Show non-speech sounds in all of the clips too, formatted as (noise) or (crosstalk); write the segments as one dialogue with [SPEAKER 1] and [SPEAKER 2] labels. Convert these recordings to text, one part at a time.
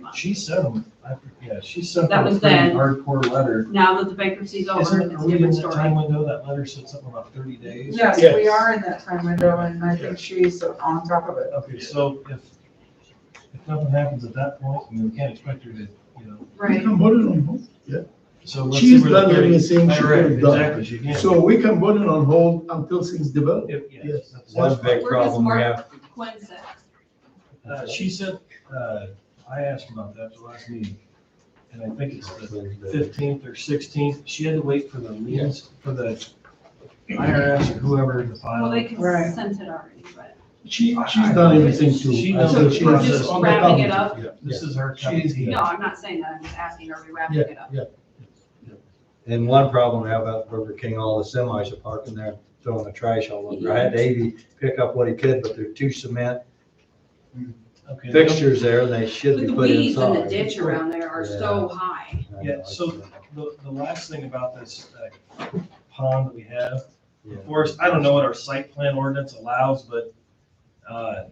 [SPEAKER 1] month.
[SPEAKER 2] She sent, I forget- yeah, she sent
[SPEAKER 1] That
[SPEAKER 2] them a
[SPEAKER 1] was
[SPEAKER 2] pretty
[SPEAKER 1] then.
[SPEAKER 2] hardcore letter.
[SPEAKER 1] Now that the bankruptcy's over,
[SPEAKER 2] Isn't,
[SPEAKER 1] it's
[SPEAKER 2] are
[SPEAKER 1] a
[SPEAKER 2] we in
[SPEAKER 1] different
[SPEAKER 2] that time
[SPEAKER 1] story.
[SPEAKER 2] window? That letter said something about thirty days?
[SPEAKER 3] Yes, we
[SPEAKER 4] Yes.
[SPEAKER 3] are in that time window, and I think she's on top of it.
[SPEAKER 2] Okay, so if, if nothing happens at that point, I mean, we can't expect her to, you know,
[SPEAKER 4] We
[SPEAKER 1] Right.
[SPEAKER 4] can vote it on hold.
[SPEAKER 2] so let's see
[SPEAKER 4] She's
[SPEAKER 2] where the
[SPEAKER 4] done
[SPEAKER 2] 30
[SPEAKER 4] everything she
[SPEAKER 2] Right,
[SPEAKER 4] could have done.
[SPEAKER 2] Exactly, she can't.
[SPEAKER 4] So we can vote it on hold until things develop.
[SPEAKER 2] If- yeah,
[SPEAKER 4] Yes.
[SPEAKER 2] that's-
[SPEAKER 5] One big
[SPEAKER 1] Where does
[SPEAKER 5] problem we have,
[SPEAKER 1] Mark Quinn sit?
[SPEAKER 2] Uh, she said, uh, I asked about that the last meeting, and I think it's the fifteenth or sixteenth, she had to wait for the liens, for the IRS or whoever to
[SPEAKER 1] Well,
[SPEAKER 2] file.
[SPEAKER 1] they can
[SPEAKER 3] Right.
[SPEAKER 1] send it already, but
[SPEAKER 4] She, she's done everything to.
[SPEAKER 2] She
[SPEAKER 4] until
[SPEAKER 2] knows
[SPEAKER 4] she
[SPEAKER 2] the
[SPEAKER 4] has-
[SPEAKER 2] process.
[SPEAKER 4] on the
[SPEAKER 1] Wrapping it
[SPEAKER 4] top.
[SPEAKER 2] This is her cup of
[SPEAKER 4] She's-
[SPEAKER 2] tea.
[SPEAKER 1] no, I'm not saying that. I'm just asking, are we wrapping
[SPEAKER 4] Yeah,
[SPEAKER 1] it up?
[SPEAKER 4] yeah.
[SPEAKER 5] and one problem we have at Burger King, all the semis are parking there throwing the trash all over. I had Davey pick up what he could, but there are two cement
[SPEAKER 2] Okay.
[SPEAKER 5] fixtures there and they should
[SPEAKER 1] But
[SPEAKER 5] be
[SPEAKER 1] the
[SPEAKER 5] put
[SPEAKER 1] weeds in the
[SPEAKER 5] inside.
[SPEAKER 1] ditch around there are so high.
[SPEAKER 5] I know,
[SPEAKER 2] Yeah, so the, the last thing about this uh, pond that we have,
[SPEAKER 5] yeah.
[SPEAKER 2] Of course, I don't know what our site plan ordinance allows, but, uh,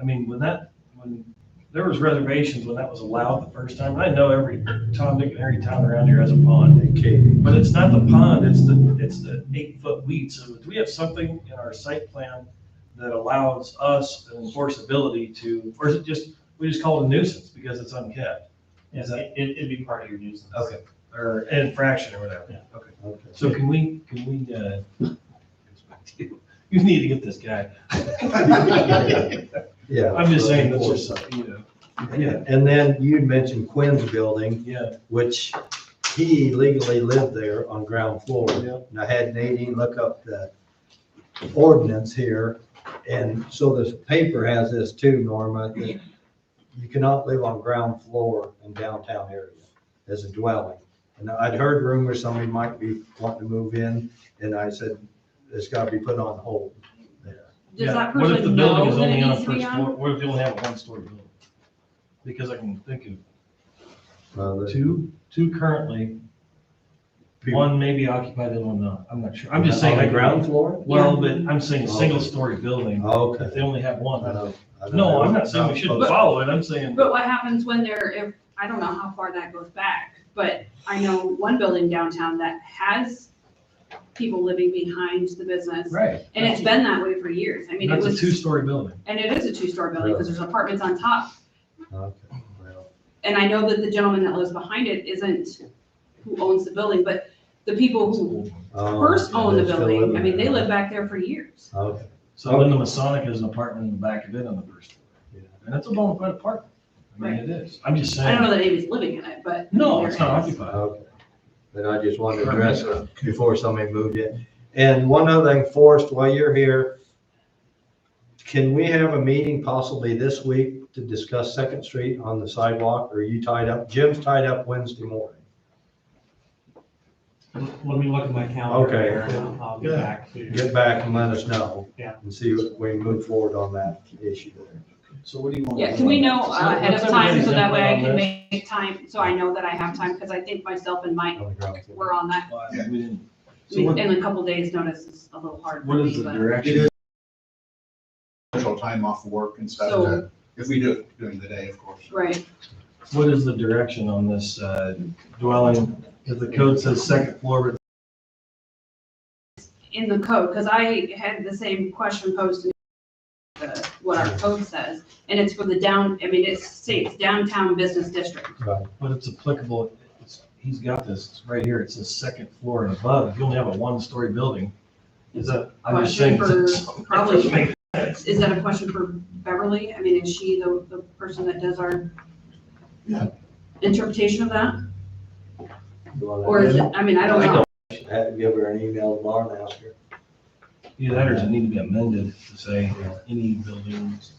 [SPEAKER 2] I mean, when that, when, there was reservations when that was allowed the first time. I know every Tom, Dick, and every town around here has a pond.
[SPEAKER 5] Okay,
[SPEAKER 2] But it's not the pond, it's the, it's the eight-foot weed. So do we have something in our site plan that allows us an enforceability to, or is it just, we just call it a nuisance because it's unkept?
[SPEAKER 6] Yes, it, it'd be part of your nuisance.
[SPEAKER 2] Okay, or infraction or whatever. Okay.
[SPEAKER 5] okay.
[SPEAKER 2] So can we, can we, uh, (laughs) you need to get this guy. (laughs)
[SPEAKER 7] (laughs)
[SPEAKER 5] Yeah.
[SPEAKER 2] I'm just saying, that's just, something, you know,
[SPEAKER 5] Yeah, and then you mentioned Quinn's building,
[SPEAKER 2] yeah.
[SPEAKER 5] which he legally lived there on ground floor.
[SPEAKER 2] Yeah.
[SPEAKER 5] And I had Nadine look up the ordinance here, and so this paper has this too, Norma, that you cannot live on ground floor in downtown area as a dwelling. And I'd heard rumors somebody might be wanting to move in, and I said, it's gotta be put on hold there.
[SPEAKER 1] Does
[SPEAKER 2] Yeah.
[SPEAKER 1] that
[SPEAKER 2] What if the
[SPEAKER 1] person
[SPEAKER 2] building
[SPEAKER 1] know
[SPEAKER 2] is
[SPEAKER 1] that
[SPEAKER 2] only
[SPEAKER 1] it
[SPEAKER 2] on a
[SPEAKER 1] needs to be
[SPEAKER 2] first
[SPEAKER 1] on?
[SPEAKER 2] floor? What if you only have a one-story building? Because I can think of
[SPEAKER 5] Uh, the-
[SPEAKER 2] two, two currently, one maybe occupied and one not, I'm not sure, I'm just saying.
[SPEAKER 5] On
[SPEAKER 2] I
[SPEAKER 5] the ground floor?
[SPEAKER 2] Well, but I'm saying a single-story building,
[SPEAKER 5] Okay.
[SPEAKER 2] if they only have
[SPEAKER 5] I
[SPEAKER 2] one.
[SPEAKER 5] don't- I don't know.
[SPEAKER 2] No, I'm not saying we shouldn't follow it, I'm saying,
[SPEAKER 1] But what happens when they're, if, I don't know how far that goes back, but I know one building downtown that has people living behind the business.
[SPEAKER 2] right.
[SPEAKER 1] And it's been that way for years. I mean, it
[SPEAKER 2] That's a
[SPEAKER 1] was,
[SPEAKER 2] two-story building.
[SPEAKER 1] and it is a two-story building because there's apartments on top.
[SPEAKER 5] Okay, well,
[SPEAKER 1] And I know that the gentleman that lives behind it isn't who owns the building, but the people who
[SPEAKER 5] oh,
[SPEAKER 1] first
[SPEAKER 5] yeah,
[SPEAKER 1] owned the
[SPEAKER 5] they're still
[SPEAKER 1] building, I
[SPEAKER 5] living
[SPEAKER 1] mean, they
[SPEAKER 5] there.
[SPEAKER 1] lived back there for years.
[SPEAKER 5] Okay,
[SPEAKER 2] So then the Masonic has an apartment in the back of it on the first
[SPEAKER 5] Yeah.
[SPEAKER 2] floor. And that's a bona fide apartment. I mean, it is. I'm just
[SPEAKER 1] I don't know
[SPEAKER 2] saying.
[SPEAKER 1] that anybody's living in it, but.
[SPEAKER 2] No, it's
[SPEAKER 1] there
[SPEAKER 2] not
[SPEAKER 1] is.
[SPEAKER 2] occupied.
[SPEAKER 5] okay. But I just wanted to address it before somebody moved in. And one other thing, Forrest, while you're here, can we have a meeting possibly this week to discuss Second Street on the sidewalk? Or are you tied up? Jim's tied up Wednesday morning.
[SPEAKER 6] Let me look at my calendar
[SPEAKER 5] Okay.
[SPEAKER 6] here, and I'll- I'll be
[SPEAKER 4] Yeah.
[SPEAKER 6] back to you.
[SPEAKER 5] Get back and let us know.
[SPEAKER 6] Yeah.
[SPEAKER 5] And see if we move forward on that issue there.
[SPEAKER 2] So what do you want?
[SPEAKER 1] Yeah, can we know uh,
[SPEAKER 2] So
[SPEAKER 1] ahead of
[SPEAKER 2] what's
[SPEAKER 1] time
[SPEAKER 2] everybody's
[SPEAKER 1] so that way I
[SPEAKER 2] input
[SPEAKER 1] can
[SPEAKER 2] on
[SPEAKER 1] make time, so I know that I have time, because I think myself and Mike
[SPEAKER 5] on the ground floor.
[SPEAKER 1] were on that.
[SPEAKER 2] Well, I mean, we didn't-
[SPEAKER 1] I
[SPEAKER 2] So
[SPEAKER 1] mean,
[SPEAKER 2] what,
[SPEAKER 1] In a couple days, notice is a little hard.
[SPEAKER 2] what
[SPEAKER 1] for
[SPEAKER 2] is
[SPEAKER 1] me,
[SPEAKER 2] the
[SPEAKER 1] but-
[SPEAKER 2] direction?
[SPEAKER 7] special time off work and stuff,
[SPEAKER 1] So-
[SPEAKER 7] to- if we do it during the day, of course.
[SPEAKER 1] Right,
[SPEAKER 2] What is the direction on this uh, dwelling? Because the code says second floor, but
[SPEAKER 1] in the code, because I had the same question posed to me, uh, what our code says, and it's for the down, I mean, it states downtown business district.
[SPEAKER 2] but it's applicable. It's- He's got this it's right here. It says second floor and above. If you only have a one-story building, is that, I'm just saying.
[SPEAKER 1] Question for probably
[SPEAKER 2] (laughs) Make
[SPEAKER 1] Is that a question for Beverly? I mean, is she the, the person that does our
[SPEAKER 7] Yeah.
[SPEAKER 1] interpretation of that?
[SPEAKER 5] You want to-
[SPEAKER 1] Or is it, I mean, I don't
[SPEAKER 2] I
[SPEAKER 1] know.
[SPEAKER 5] Have to give her an email tomorrow and ask her.
[SPEAKER 2] Either that or does it need to be amended to say any buildings?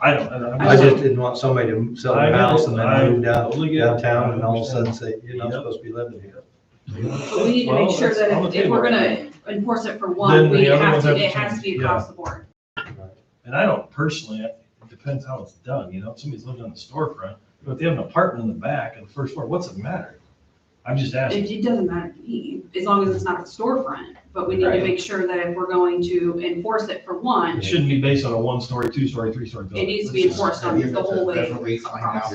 [SPEAKER 2] I don't, I don't.
[SPEAKER 5] I just didn't want somebody to sell
[SPEAKER 2] I
[SPEAKER 5] their
[SPEAKER 2] know,
[SPEAKER 5] house and
[SPEAKER 2] I
[SPEAKER 5] then move down,
[SPEAKER 2] totally get it.
[SPEAKER 5] downtown and all of a sudden say, you're
[SPEAKER 2] Yep.
[SPEAKER 5] not supposed to be living here.
[SPEAKER 1] But we need to make
[SPEAKER 2] Well,
[SPEAKER 1] sure
[SPEAKER 2] that's
[SPEAKER 1] that
[SPEAKER 2] on
[SPEAKER 1] if-
[SPEAKER 2] the
[SPEAKER 1] if we're
[SPEAKER 2] table.
[SPEAKER 1] gonna enforce it for
[SPEAKER 2] Then
[SPEAKER 1] one,
[SPEAKER 2] the
[SPEAKER 1] we
[SPEAKER 2] other
[SPEAKER 1] have
[SPEAKER 2] ones
[SPEAKER 1] to,
[SPEAKER 2] have to
[SPEAKER 1] it has to be
[SPEAKER 2] change,
[SPEAKER 1] across the board.
[SPEAKER 2] And I don't personally, it depends how it's done, you know, if somebody's living on the storefront, but if they have an apartment in the back and the first floor, what's it matter? I'm just asking.
[SPEAKER 1] It, it doesn't matter to me, as long as it's not the storefront, but we need to
[SPEAKER 2] Right.
[SPEAKER 1] make sure that if we're going to enforce it for one,
[SPEAKER 2] It shouldn't be based on a one-story, two-story, three-story building.
[SPEAKER 1] It needs to be
[SPEAKER 2] Let's just-
[SPEAKER 1] enforced on the whole way
[SPEAKER 7] Definitely find out.
[SPEAKER 1] across.